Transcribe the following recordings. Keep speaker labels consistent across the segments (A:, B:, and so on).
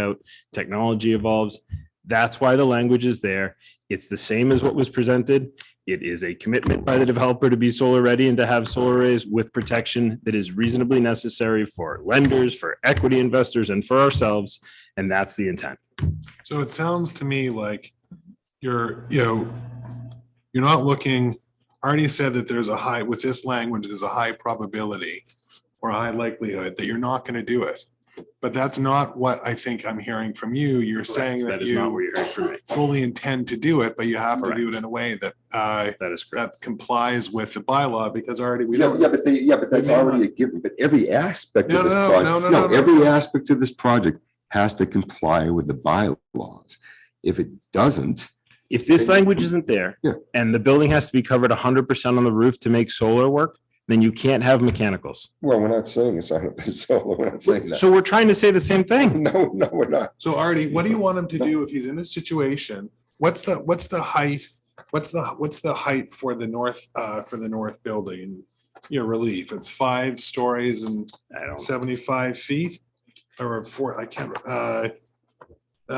A: out, technology evolves. That's why the language is there. It's the same as what was presented. It is a commitment by the developer to be solar ready and to have solar arrays with protection that is reasonably necessary for lenders, for equity investors, and for ourselves. And that's the intent.
B: So it sounds to me like you're, you know, you're not looking, I already said that there's a high, with this language, there's a high probability or a high likelihood that you're not going to do it. But that's not what I think I'm hearing from you. You're saying
A: That
B: that
A: is not what
B: you
A: you're for me.
B: fully intend to do it, but you have to do
A: Correct.
B: it in a way that, uh,
A: That is correct.
B: that complies with the bylaw because already we
C: Yeah, but-
B: don't.
C: yeah, but they, yeah, but that's
B: may not-
C: already a given, but every aspect
B: No,
C: of this
B: no, no,
C: project,
B: no, no,
C: no,
B: no, no.
C: every aspect of this project has to comply with the bylaws. If it doesn't,
A: If this
C: Then-
A: language isn't there
C: Yeah.
A: and the building has to be covered hundred percent on the roof to make solar work, then you can't have mechanicals.
C: well, we're not saying it's on a solar, we're not saying that.
A: So we're trying to say the same thing.
C: No, no, we're not.
B: So Artie, what do you want him to do if he's in this situation? What's the, what's the height? What's the, what's the height for the north, uh, for the north building? Your relief, it's five stories and
A: I don't.
B: seventy-five feet or four, I can't, uh,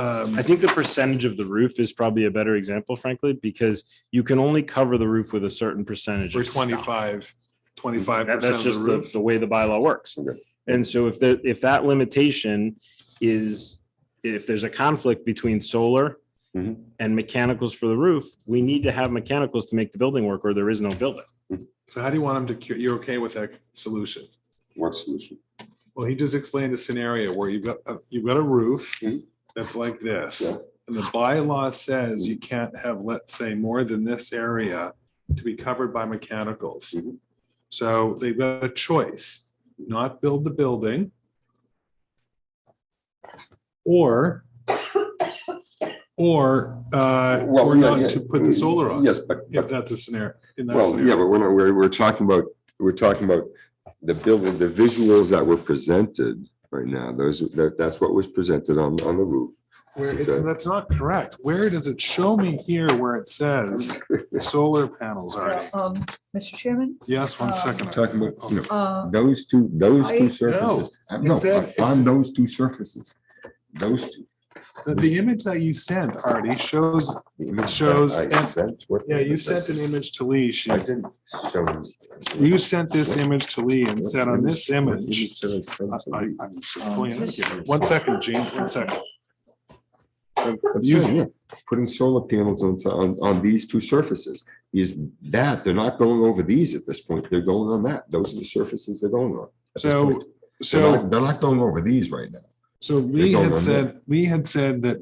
B: um,
A: I think the percentage of the roof is probably a better example, frankly, because you can only cover the roof with a certain percentage.
B: we're
A: of stuff.
B: twenty-five, twenty-five
A: That-
B: percent
A: That's
B: of the
A: just the,
B: roof.
A: the way the bylaw works.
C: Okay.
A: And so if the, if that limitation is, if there's a conflict between solar
C: Mhm.
A: and mechanicals for the roof, we need to have mechanicals to make the building work or there is no building.
B: So how do you want him to, cure- you're okay with that solution?
C: What solution?
B: Well, he just explained a scenario where you've got, a- you've got a roof
C: Mhm.
B: that's like this.
C: Yeah.
B: And the bylaw says you can't have, let's say, more than this area to be covered by mechanicals.
C: Mhm.
B: So they've got a choice, not build the building. Or, or, uh,
C: Well,
B: or
C: yeah,
B: not
C: yeah.
B: to put the solar on,
C: Yes, but,
B: if
C: but,
B: that's a scenario. in that
C: well, yeah,
B: scenario.
C: but we're, not- we're, we're talking about, we're talking about the building, the visuals that were presented right now, those, that, that's what was presented on, on the roof.
B: Where it's,
C: Okay.
B: that's not correct. Where does it show me here where it says solar panels are?
D: Um, Mr. Chairman,
B: Yes, one second.
C: Talking about, you know,
D: uh,
C: Those two, those
D: I- No,
C: two surfaces, Uh, no,
B: it's a-
C: on- on those two surfaces, those two.
B: The, the image that you sent, Artie, shows,
C: It
B: shows-
C: I sent what.
B: yeah, you sent an image to Lee. She,
C: I didn't show.
B: you sent this image to Lee and said on this
C: What
B: image.
C: did I Um, send to
B: I- I-
C: you?
B: I'm just pulling it up. One second, Gene, one second.
C: I'm- I'm
B: you-
C: saying, yeah, Putting solar panels on, on, on these two surfaces is that, they're not going over these at this point, they're going on that. Those are the surfaces they're going on. at this
B: So,
C: point. They're
B: so,
C: not- They're not going over these right now.
B: so Lee
C: going
B: had
C: on
B: said, Lee had said that,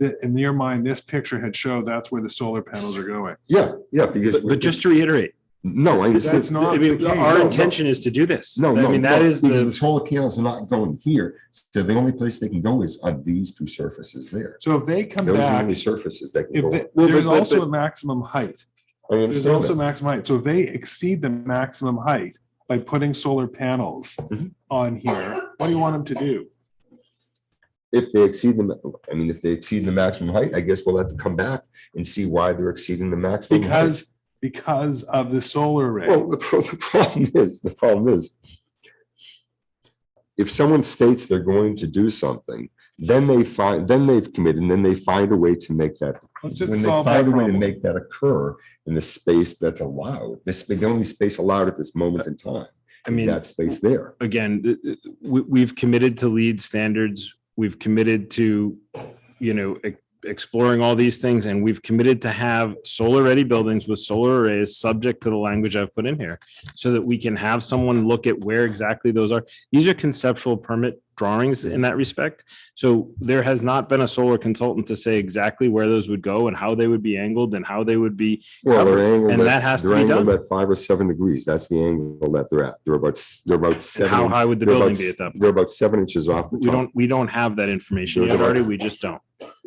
B: that in your mind, this picture had showed that's where the solar panels are going.
C: Yeah, yeah, because.
A: But, but just to reiterate,
C: No, I understand.
B: That's not
A: I mean,
B: the
A: our
B: case.
A: intention is to do this.
C: No, no.
A: I mean, that
C: no,
A: is
C: because
A: the,
C: The solar panels are not going here, so the only place they can go is on these two surfaces there.
B: So if they come
C: Those are the
B: back,
C: only surfaces that can
B: if,
C: go.
B: they-
C: on.
A: Well,
B: there's
A: but- but-
B: also
A: but-
B: a maximum height.
C: I
B: There's
C: understand
B: also
C: that.
B: maximum height. So if they exceed the maximum height by putting solar panels
C: Mhm.
B: on here, what do you want them to do?
C: If they exceed the, ma- I mean, if they exceed the maximum height, I guess we'll have to come back and see why they're exceeding the maximum. height.
B: Because, because of the solar array.
C: Well, the pro- the problem is, the problem is, if someone states they're going to do something, then they find, then they've committed, and then they find a way to make that
B: Let's
C: when
B: just
C: they
B: solve that
C: find a way to
B: problem.
C: make that occur in the space that's allowed, this, the only space allowed at this moment in time,
A: I
C: is
A: mean.
C: that space there.
A: again, th- th- we, we've committed to lead standards. We've committed to, you know, e- exploring all these things and we've committed to have solar ready buildings with solar arrays subject to the language I've put in here so that we can have someone look at where exactly those are. These are conceptual permit drawings in that respect. So there has not been a solar consultant to say exactly where those would go and how they would be angled and how they would be.
C: Well, they're
A: And that
C: angled at,
A: has to
C: they're
A: be
C: angled
A: done.
C: at five or seven degrees, that's the angle that they're at, they're about, s- they're about
A: And
C: seven.
A: how high would the
C: they're about
A: building
C: s-
A: be at that point?
C: They're about seven inches off the
A: We
C: top.
A: don't, we don't have that information
C: Sure.
A: yet, Artie. We just don't.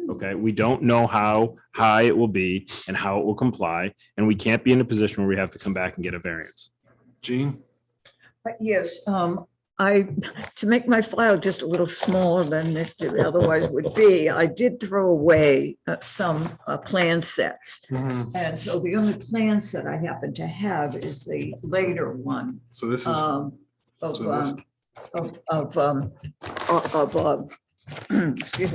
A: Okay, we don't know how high it will be and how it will comply, and we can't be in a position where we have to come back and get a variance.
B: Gene,
D: but yes, um, I, to make my file just a little smaller than it otherwise would be, I did throw away uh, some uh, plan sets. And so the only plan set I happen to have is the later one
B: so this is,
D: um, of,
B: So this-
D: um, of, of, um, of, of, um, excuse me,